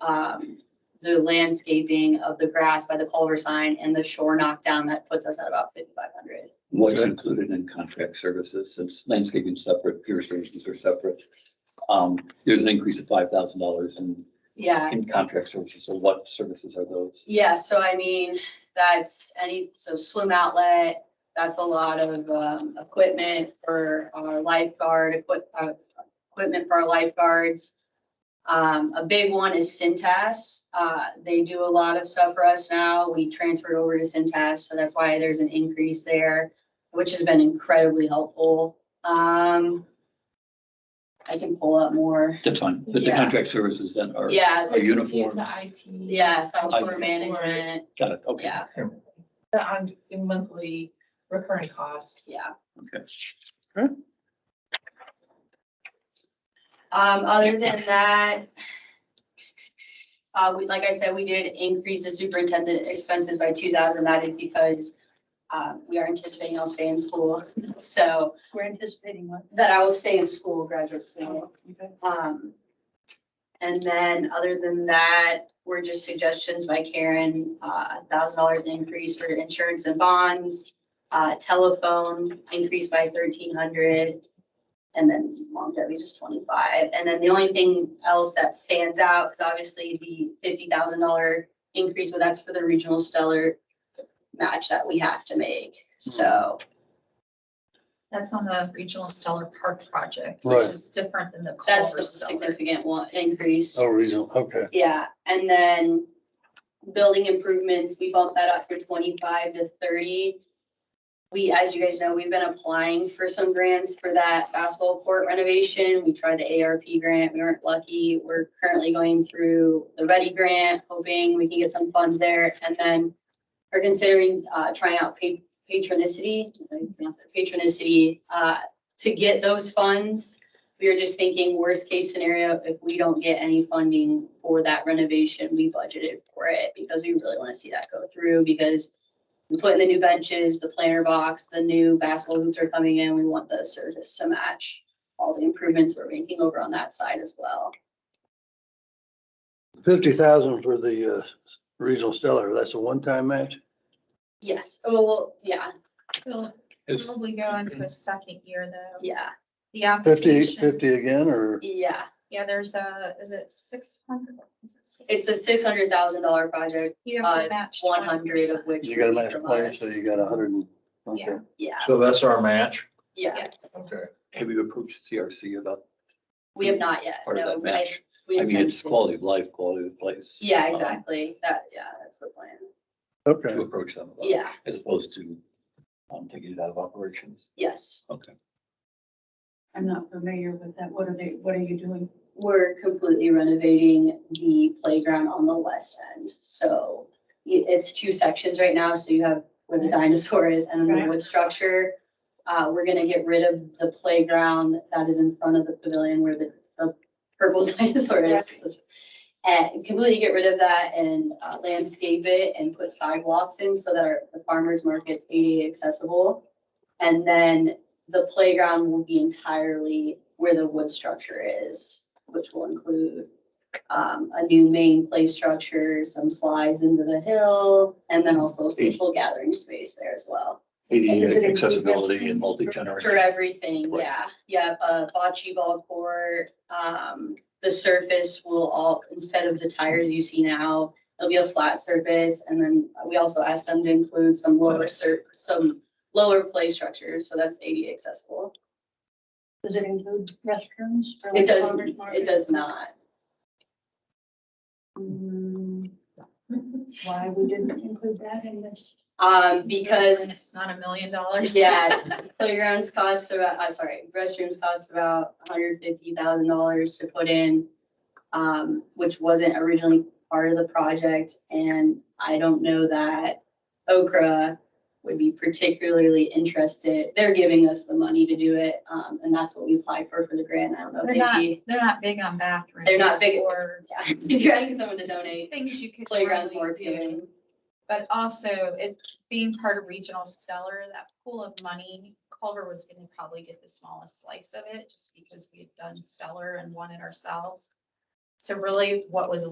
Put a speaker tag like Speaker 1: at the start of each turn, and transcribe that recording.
Speaker 1: um, the landscaping of the grass by the culver sign and the shore knockdown, that puts us at about fifty-five hundred.
Speaker 2: What's
Speaker 3: Okay.
Speaker 2: included in contract services, since landscaping is separate, pier stations are separate. Um, there's an increase of five thousand dollars in,
Speaker 1: Yeah,
Speaker 2: in contract services, so what services are those?
Speaker 1: yeah, so I mean, that's any, so swim outlet, that's a lot of, um, equipment for our lifeguard, equip, uh, equipment for our lifeguards. Um, a big one is Cintas. Uh, they do a lot of stuff for us now. We transferred over to Cintas, so that's why there's an increase there, which has been incredibly helpful. Um, I can pull up more.
Speaker 2: That's fine, but the
Speaker 1: Yeah.
Speaker 2: contract services then are,
Speaker 1: Yeah,
Speaker 2: are uniform,
Speaker 4: The IT.
Speaker 1: yeah, software
Speaker 4: Support.
Speaker 1: management,
Speaker 2: got it, okay,
Speaker 1: yeah,
Speaker 4: The on, the monthly recurring costs.
Speaker 1: yeah.
Speaker 2: okay.
Speaker 1: Um, other than that, uh, we, like I said, we did increase the superintendent expenses by two thousand. That is because um, we are anticipating I'll stay in school. So
Speaker 5: We're anticipating what?
Speaker 1: that I will stay in school, graduate school.
Speaker 5: Okay.
Speaker 1: Um, and then other than that, were just suggestions by Karen, uh, thousand dollars increase for insurance and bonds, uh, telephone increase by thirteen hundred. And then longevity's just twenty-five. And then the only thing else that stands out is obviously the fifty thousand dollar increase, but that's for the regional stellar match that we have to make. So,
Speaker 6: That's on the regional stellar park project,
Speaker 3: Right.
Speaker 6: which is different than the
Speaker 1: That's
Speaker 6: Culver
Speaker 1: the
Speaker 6: stellar.
Speaker 1: significant one, increase.
Speaker 3: Oh, regional, okay.
Speaker 1: Yeah, and then building improvements, we bumped that up from twenty-five to thirty. We, as you guys know, we've been applying for some grants for that basketball court renovation. We tried the ARP grant, we weren't lucky. We're currently going through the Ready Grant, hoping we can get some funds there, and then are considering, uh, trying out pa- patronicity, I don't know if you pronounce it, patronicity, uh, to get those funds we were just thinking worst case scenario, if we don't get any funding for that renovation, we budgeted for it because we really want to see that go through because we put in the new benches, the planter box, the new basketball hoops are coming in. We want the service to match all the improvements we're making over on that side as well.
Speaker 3: Fifty thousand for the uh, regional stellar, that's a one-time match?
Speaker 1: Yes, oh, well, yeah,
Speaker 6: We'll
Speaker 3: Is
Speaker 6: Probably go on to a second year though.
Speaker 1: yeah,
Speaker 6: The
Speaker 3: fifty,
Speaker 6: application,
Speaker 3: fifty again, or?
Speaker 1: yeah.
Speaker 6: yeah, there's a, is it six hundred?
Speaker 1: It's a six hundred thousand dollar project,
Speaker 6: You
Speaker 1: uh,
Speaker 6: have to match.
Speaker 1: one hundred of
Speaker 6: 20%.
Speaker 1: which.
Speaker 3: You got a
Speaker 1: would be
Speaker 3: match
Speaker 1: from
Speaker 3: plan,
Speaker 1: us.
Speaker 3: so you got a hundred and, okay.
Speaker 6: Yeah.
Speaker 1: Yeah,
Speaker 7: So that's our match?
Speaker 1: yeah,
Speaker 6: Yes.
Speaker 7: Okay.
Speaker 2: Have you approached CRC about
Speaker 1: we have not yet.
Speaker 2: part of
Speaker 1: No,
Speaker 2: that
Speaker 1: I-
Speaker 2: match?
Speaker 1: we
Speaker 2: I mean,
Speaker 1: intend
Speaker 2: it's
Speaker 1: to.
Speaker 2: quality of life, quality of place.
Speaker 1: Yeah,
Speaker 2: um,
Speaker 1: exactly. That, yeah, that's the plan.
Speaker 2: To
Speaker 3: Okay,
Speaker 2: approach them. about,
Speaker 1: Yeah,
Speaker 2: As opposed to, um, taking it out of operations,
Speaker 1: yes.
Speaker 2: okay.
Speaker 5: I'm not familiar with that. What are they, what are you doing?
Speaker 1: We're completely renovating the playground on the west end. So i- it's two sections right now. So you have where the dinosaur is and then the
Speaker 5: Right.
Speaker 1: wood structure. Uh, we're gonna get rid of the playground that is in front of the pavilion where the, the purple dinosaur is. And completely get rid of that and uh, landscape it and put sidewalks in so that our- the farmer's market's ADA accessible. And then the playground will be entirely where the wood structure is, which will include um, a new main play structure, some slides into the hill, and then also social gathering space there as well.
Speaker 5: Is it
Speaker 2: ADA
Speaker 5: included?
Speaker 2: accessibility and
Speaker 1: For
Speaker 2: multi-generation.
Speaker 1: everything, yeah, yeah, uh, bocce ball court, um, the surface will all, instead of the tires you see now, it'll be a flat surface, and then we also asked them to include some lower sur, some lower play structures, so that's ADA accessible.
Speaker 5: Does it include restrooms? for like
Speaker 1: It does,
Speaker 5: farmers
Speaker 1: it
Speaker 5: market?
Speaker 1: does not.
Speaker 5: Hmm, Why we didn't include that in this?
Speaker 1: Um, because,
Speaker 6: And it's not a million dollars.
Speaker 1: yeah, playgrounds cost about, i sorry, restrooms cost about hundred fifty thousand dollars to put in, um, which wasn't originally part of the project, and I don't know that Okra would be particularly interested. They're giving us the money to do it, um, and that's what we applied for for the grant. I don't know
Speaker 6: They're
Speaker 1: if
Speaker 6: not,
Speaker 1: they'd be,
Speaker 6: they're not big on bathrooms.
Speaker 1: They're not big-
Speaker 6: Or
Speaker 1: yeah, if you're asking someone to donate,
Speaker 6: things you could.
Speaker 1: playgrounds more
Speaker 6: normally do.
Speaker 1: appealing.
Speaker 6: But also, it being part of regional stellar, that pool of money, Culver was gonna probably get the smallest slice of it, just because we had done stellar and won it ourselves. So really, what was